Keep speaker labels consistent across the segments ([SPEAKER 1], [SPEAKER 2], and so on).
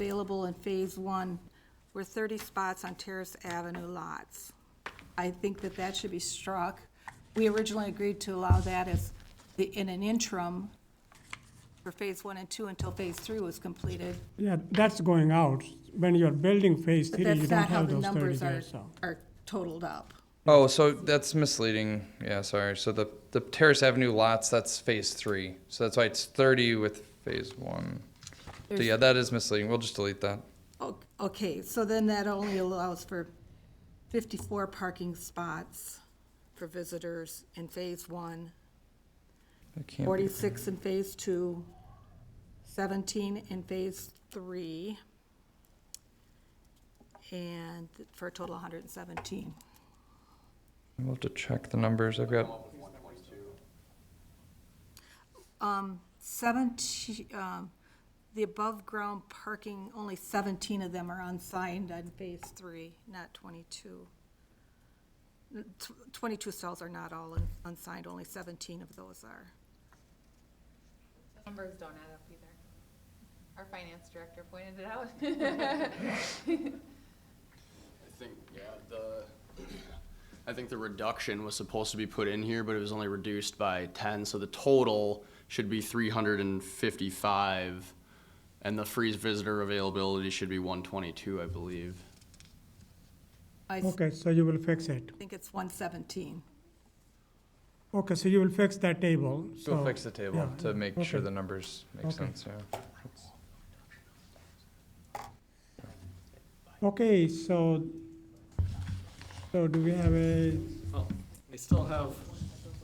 [SPEAKER 1] available in Phase One were 30 spots on Terrace Avenue lots. I think that that should be struck. We originally agreed to allow that as, the- in an interim for Phase One and Two until Phase Three was completed.
[SPEAKER 2] Yeah, that's going out. When you're building phase
[SPEAKER 1] But
[SPEAKER 2] three, you
[SPEAKER 1] that's
[SPEAKER 2] don't
[SPEAKER 1] not how
[SPEAKER 2] have
[SPEAKER 1] the
[SPEAKER 2] those thirty
[SPEAKER 1] numbers are,
[SPEAKER 2] days, so.
[SPEAKER 1] are totaled up.
[SPEAKER 3] Oh, so that's misleading. Yeah, sorry. So the, the Terrace Avenue lots, that's phase three. So that's why it's 30 with phase one. So
[SPEAKER 1] There's-
[SPEAKER 3] yeah, that is misleading. We'll just delete that.
[SPEAKER 1] O- Okay, so then that only allows for 54 parking spots for visitors in Phase One,
[SPEAKER 3] That can't be-
[SPEAKER 1] 46 in Phase Two, 17 in Phase Three, and for a total of 117.
[SPEAKER 3] We'll have to check the numbers. I've got,
[SPEAKER 1] 17, um, the above-ground parking, only 17 of them are unsigned on Phase Three, not 22. Tw- 22 stalls are not all un- unsigned, only 17 of those are.
[SPEAKER 4] Numbers don't add up either. Our finance director pointed it out.
[SPEAKER 5] I think, yeah, the, I think the reduction was supposed to be put in here, but it was only reduced by ten, so the total should be three hundred and fifty-five, and the freeze visitor availability should be one twenty-two, I believe.
[SPEAKER 1] I s-
[SPEAKER 2] Okay, so you will fix it.
[SPEAKER 1] think it's 117.
[SPEAKER 2] Okay, so you will fix that table, so.
[SPEAKER 3] we'll fix the table
[SPEAKER 2] Oh. yeah,
[SPEAKER 3] to make sure
[SPEAKER 2] okay.
[SPEAKER 3] the numbers make
[SPEAKER 2] Okay.
[SPEAKER 3] sense. Yeah.
[SPEAKER 2] Okay, so, so do we have a,
[SPEAKER 6] Well, we still have,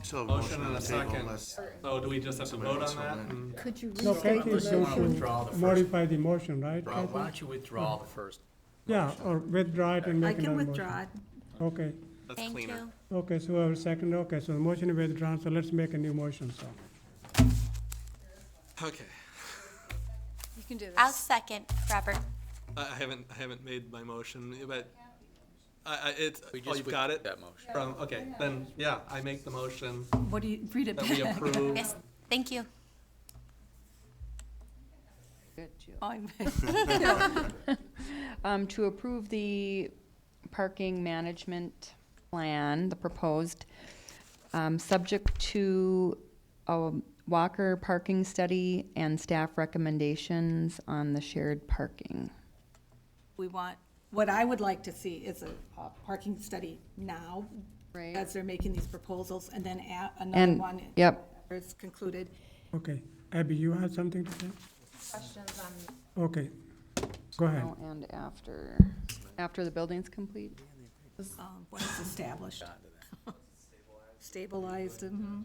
[SPEAKER 7] So a motion
[SPEAKER 6] Motion
[SPEAKER 7] on
[SPEAKER 6] and
[SPEAKER 7] the
[SPEAKER 6] a
[SPEAKER 7] table
[SPEAKER 6] second.
[SPEAKER 7] unless
[SPEAKER 6] so do we just have to vote on that? Mm. and-
[SPEAKER 8] Could you
[SPEAKER 2] no,
[SPEAKER 8] restate
[SPEAKER 2] can't you
[SPEAKER 8] the
[SPEAKER 7] unless you want to
[SPEAKER 2] motion-
[SPEAKER 7] withdraw the first.
[SPEAKER 2] modify the motion, right?
[SPEAKER 7] Withdraw.
[SPEAKER 2] Kathy?
[SPEAKER 7] Why
[SPEAKER 9] don't you withdraw the first?
[SPEAKER 2] Yeah, or withdraw it and
[SPEAKER 1] I
[SPEAKER 2] make
[SPEAKER 1] can
[SPEAKER 2] another motion.
[SPEAKER 1] withdraw it.
[SPEAKER 2] Okay,
[SPEAKER 6] That's
[SPEAKER 8] Thank
[SPEAKER 6] cleaner.
[SPEAKER 8] you.
[SPEAKER 2] okay, so our second, okay, so the motion is withdrawn, so let's make a new motion, so.
[SPEAKER 6] Okay,
[SPEAKER 4] You can do this.
[SPEAKER 8] I'll second, Robert.
[SPEAKER 6] I, I haven't, I haven't made my motion, but I, I, it's,
[SPEAKER 9] We
[SPEAKER 6] oh,
[SPEAKER 9] just
[SPEAKER 6] you've got it?
[SPEAKER 9] That motion.
[SPEAKER 6] From, okay, then, yeah, I make the motion
[SPEAKER 1] What do you, read it
[SPEAKER 6] that we
[SPEAKER 1] back.
[SPEAKER 6] approve.
[SPEAKER 8] Yes, thank you.
[SPEAKER 10] Good, Jill.
[SPEAKER 1] I'm-
[SPEAKER 10] Um, to approve the parking management plan, the proposed, um, subject to a Walker parking study and staff recommendations on the shared parking.
[SPEAKER 1] We want, what I would like to see is a uh, parking study now,
[SPEAKER 10] Right.
[SPEAKER 1] as they're making these proposals, and then a- another
[SPEAKER 10] And,
[SPEAKER 1] one.
[SPEAKER 10] yep,
[SPEAKER 1] after It's concluded.
[SPEAKER 2] Okay, Abby, you have something to say?
[SPEAKER 4] Questions on
[SPEAKER 2] Okay, go ahead.
[SPEAKER 10] Oh, and after, after the building's complete?
[SPEAKER 1] um, When it's established. Stabilized, mhm.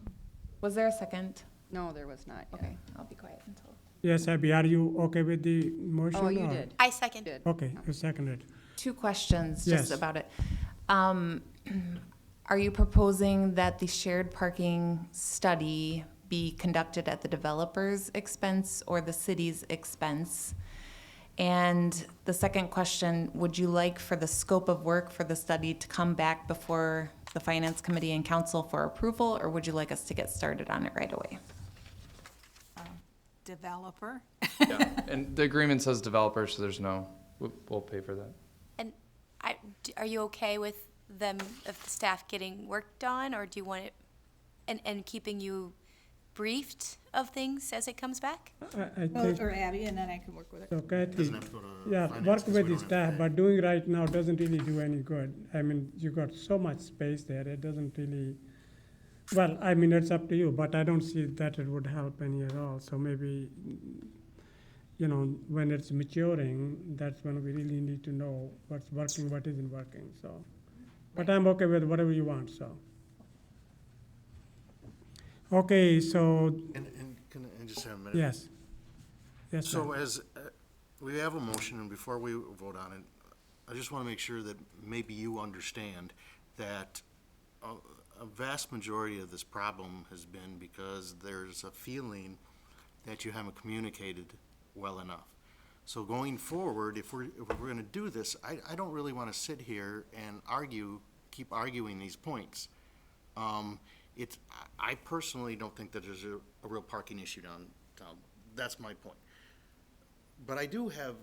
[SPEAKER 4] Was there a second?
[SPEAKER 10] No, there was not yet.
[SPEAKER 4] Okay, I'll be quiet until.
[SPEAKER 2] Yes, Abby, are you okay with the motion?
[SPEAKER 10] Oh, you
[SPEAKER 2] or-
[SPEAKER 10] did.
[SPEAKER 8] I second.
[SPEAKER 10] Did.
[SPEAKER 2] Okay, you seconded.
[SPEAKER 4] Two questions
[SPEAKER 2] Yes.
[SPEAKER 4] just about it. Um, are you proposing that the shared parking study be conducted at the developer's expense or the city's expense? And the second question, would you like for the scope of work for the study to come back before the finance committee and council for approval, or would you like us to get started on it right away?
[SPEAKER 1] developer.
[SPEAKER 3] And the agreement says developer, so there's no, we'll, we'll pay for that.
[SPEAKER 8] And I, d- are you okay with them, of the staff getting work done, or do you want it, and, and keeping you briefed of things as it comes back?
[SPEAKER 2] I, I
[SPEAKER 1] Well,
[SPEAKER 2] think,
[SPEAKER 1] Or Abby, and then I can work with it.
[SPEAKER 2] so Kathy,
[SPEAKER 7] Doesn't have to go to
[SPEAKER 2] yeah,
[SPEAKER 7] finance
[SPEAKER 2] work
[SPEAKER 7] 'cause
[SPEAKER 2] with
[SPEAKER 7] we
[SPEAKER 2] the
[SPEAKER 7] don't have
[SPEAKER 2] staff,
[SPEAKER 7] to pay.
[SPEAKER 2] but doing right now doesn't really do any good. I mean, you got so much space there, it doesn't really, well, I mean, it's up to you, but I don't see that it would help any at all. So maybe, you know, when it's maturing, that's when we really need to know what's working, what isn't working, so. But I'm okay with whatever you want, so. Okay, so,
[SPEAKER 7] And, and can I just have a minute?
[SPEAKER 2] yes. Yes, sir.
[SPEAKER 7] So as, uh, we have a motion, and before we vote on it, I just want to make sure that maybe you understand that a a vast majority of this problem has been because there's a feeling that you haven't communicated well enough. So going forward, if we're, if we're going to do this, I, I don't really want to sit here and argue, keep arguing these points. Um, it's, I- I personally don't think that there's a, a real parking issue downtown. That's my point. But I do have